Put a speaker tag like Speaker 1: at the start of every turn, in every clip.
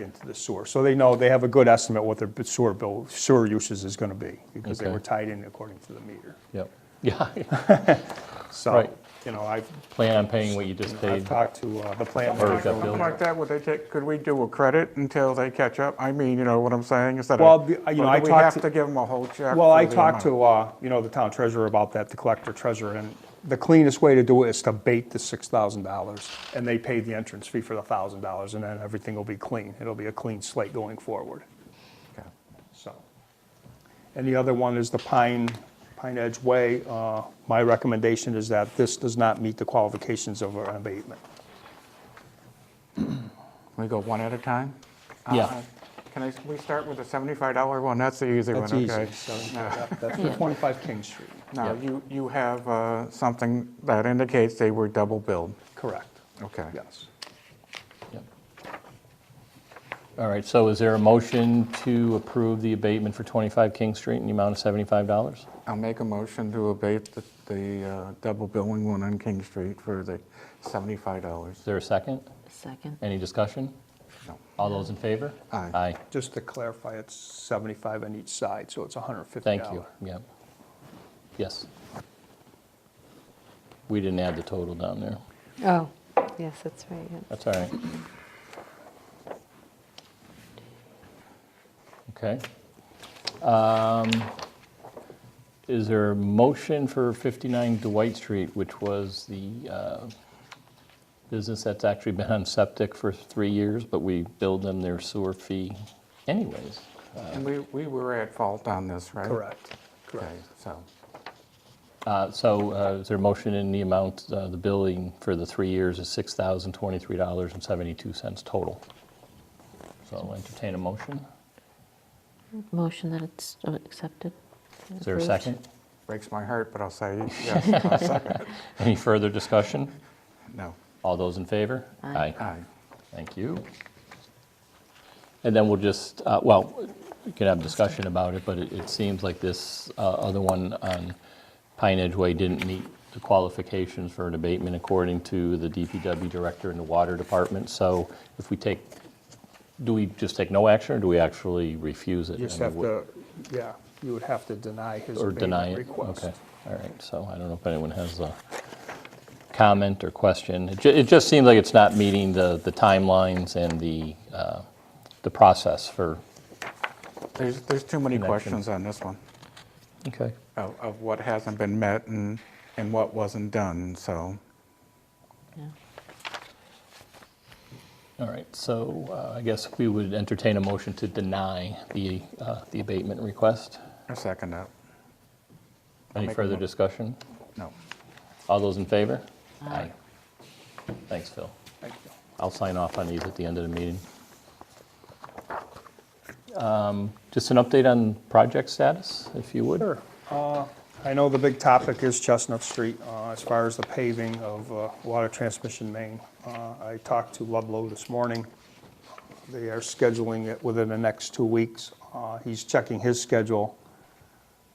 Speaker 1: into the sewer. So they know, they have a good estimate what their sewer bill, sewer usage is gonna be, because they
Speaker 2: Okay.
Speaker 1: were tied in according to the meter.
Speaker 2: Yep. Yeah,
Speaker 1: So,
Speaker 2: Right.
Speaker 1: you know, I've,
Speaker 2: plan on paying what you just paid.
Speaker 1: I've talked to uh, the plant
Speaker 2: Or is
Speaker 1: manager.
Speaker 2: that bill?
Speaker 3: Something like that, would they take, could we do a credit until they catch up? I mean, you know what I'm saying, instead
Speaker 1: Well,
Speaker 3: of,
Speaker 1: the-
Speaker 3: or
Speaker 1: you
Speaker 3: do
Speaker 1: know,
Speaker 3: we
Speaker 1: I talked
Speaker 3: have
Speaker 1: to-
Speaker 3: to give them a whole check?
Speaker 1: Well,
Speaker 3: for
Speaker 1: I
Speaker 3: the
Speaker 1: talked
Speaker 3: amount?
Speaker 1: to, uh, you know, the town treasurer about that, the collector treasurer, and the cleanest way to do it is to bait the six thousand dollars, and they pay the entrance fee for the thousand dollars, and then everything will be clean. It'll be a clean slate going forward.
Speaker 3: Okay.
Speaker 1: So. And the other one is the Pine, Pine Edge Way. Uh, My recommendation is that this does not meet the qualifications of an abatement.
Speaker 3: We go one at a time?
Speaker 2: Yeah.
Speaker 3: Uh, Can I, we start with the $75 one, that's the easy one,
Speaker 1: That's
Speaker 3: okay?
Speaker 1: easy. So, yeah, That's for 25 King Street.
Speaker 3: Now, you, you have uh, something that indicates they were double billed,
Speaker 1: Correct.
Speaker 3: okay?
Speaker 1: Yes.
Speaker 2: Yep. All right, so is there a motion to approve the abatement for 25 King Street in the amount of $75?
Speaker 3: I'll make a motion to abate the, the uh, double billing one on King Street for the $75.
Speaker 2: Is there a second?
Speaker 4: Second.
Speaker 2: Any discussion?
Speaker 3: No.
Speaker 2: All those in favor?
Speaker 3: Aye.
Speaker 2: Aye,
Speaker 1: Just to clarify, it's 75 on each side, so it's $150.
Speaker 2: thank you, yep. Yes. We didn't add the total down there.
Speaker 4: Oh, yes, that's right. yeah.
Speaker 2: That's all right. Okay. Um, Is there a motion for 59 Dwight Street, which was the uh, business that's actually been on septic for three years, but we billed them their sewer fee anyways?
Speaker 3: And we, we were at fault on this, right?
Speaker 1: Uh, Correct,
Speaker 3: Okay,
Speaker 1: correct.
Speaker 3: so,
Speaker 2: Uh, So uh, is there a motion in the amount, uh, the billing for the three years is $6,023.72 total? So I'll entertain a motion.
Speaker 4: Motion that it's uh, accepted.
Speaker 2: Is there a
Speaker 4: Approved.
Speaker 2: second?
Speaker 3: breaks my heart, but I'll say yes, I'll second.
Speaker 2: Any further discussion?
Speaker 3: No,
Speaker 2: All those in favor?
Speaker 4: Aye.
Speaker 3: aye.
Speaker 2: Thank you. And then we'll just, uh, well, we could have discussion about it, but it it seems like this uh, other one on Pine Edge Way didn't meet the qualifications for an abatement according to the DPW director and the water department. So if we take, do we just take no action, or do we actually refuse it?
Speaker 1: You just
Speaker 2: I mean,
Speaker 1: have
Speaker 2: what-
Speaker 1: to, yeah, you would have to deny his
Speaker 2: Or deny
Speaker 1: abatement
Speaker 2: it?
Speaker 1: request.
Speaker 2: Okay, all right, so I don't know if anyone has a comment or question. It ju- It just seems like it's not meeting the the timelines and the, uh, the process for.
Speaker 3: There's, there's too many
Speaker 2: Connection.
Speaker 3: questions on this one,
Speaker 2: Okay.
Speaker 3: of, of what hasn't been met and, and what wasn't done, so.
Speaker 4: Yeah.
Speaker 2: All right, so uh, I guess we would entertain a motion to deny the, uh, the abatement request.
Speaker 3: I second that,
Speaker 2: Any
Speaker 3: make a
Speaker 2: further
Speaker 3: mo-
Speaker 2: discussion?
Speaker 3: no.
Speaker 2: All those in favor? Aye. Thanks, Phil.
Speaker 1: Thank you.
Speaker 2: I'll sign off on these at the end of the meeting. Um, Just an update on project status, if you would. Sure.
Speaker 1: Uh, I know the big topic is Chestnut Street, uh, as far as the paving of uh, water transmission main. Uh, I talked to Ludlow this morning. They are scheduling it within the next two weeks. Uh, He's checking his schedule.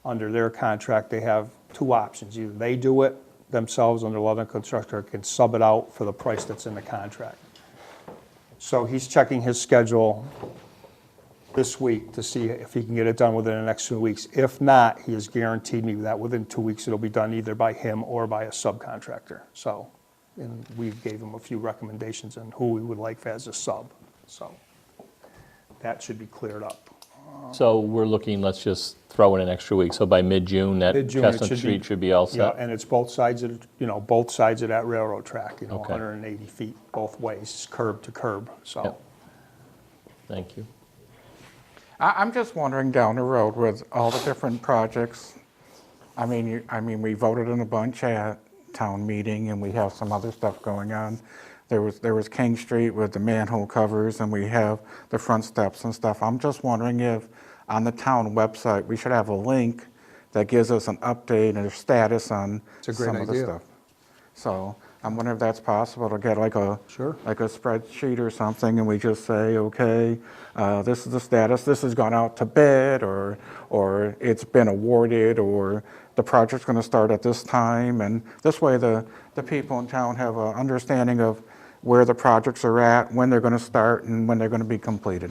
Speaker 1: Under their contract, they have two options. Either they do it themselves under Ludlow Constructor, or can sub it out for the price that's in the contract. So he's checking his schedule this week to see if he can get it done within the next two weeks. If not, he has guaranteed me that within two weeks, it'll be done either by him or by a subcontractor. So, and we gave him a few recommendations on who we would like as a sub, so that should be cleared up.
Speaker 2: So we're looking, let's just throw in an extra week, so by mid-June, that
Speaker 1: Mid-June, it should be-
Speaker 2: Chestnut Street should be all
Speaker 1: Yeah,
Speaker 2: set?
Speaker 1: and it's both sides of, you know, both sides of that railroad track, you know,
Speaker 2: Okay.
Speaker 1: 180 feet both ways, curb to curb, so.
Speaker 2: Yep. Thank you.
Speaker 3: I, I'm just wondering down the road with all the different projects. I mean, you, I mean, we voted in a bunch at town meeting and we have some other stuff going on. There was, there was King Street with the manhole covers and we have the front steps and stuff. I'm just wondering if on the town website, we should have a link that gives us an update and a status on
Speaker 1: a great
Speaker 3: some of the
Speaker 1: idea.
Speaker 3: stuff. So I'm wondering if that's possible to get like a.
Speaker 1: Sure.
Speaker 3: Like a spreadsheet or something, and we just say, okay, uh, this is the status, this has gone out to bid, or, or it's been awarded, or the project's gonna start at this time, and this way the, the people in town have a understanding of where the projects are at, when they're going to start, and when they're going to be completed.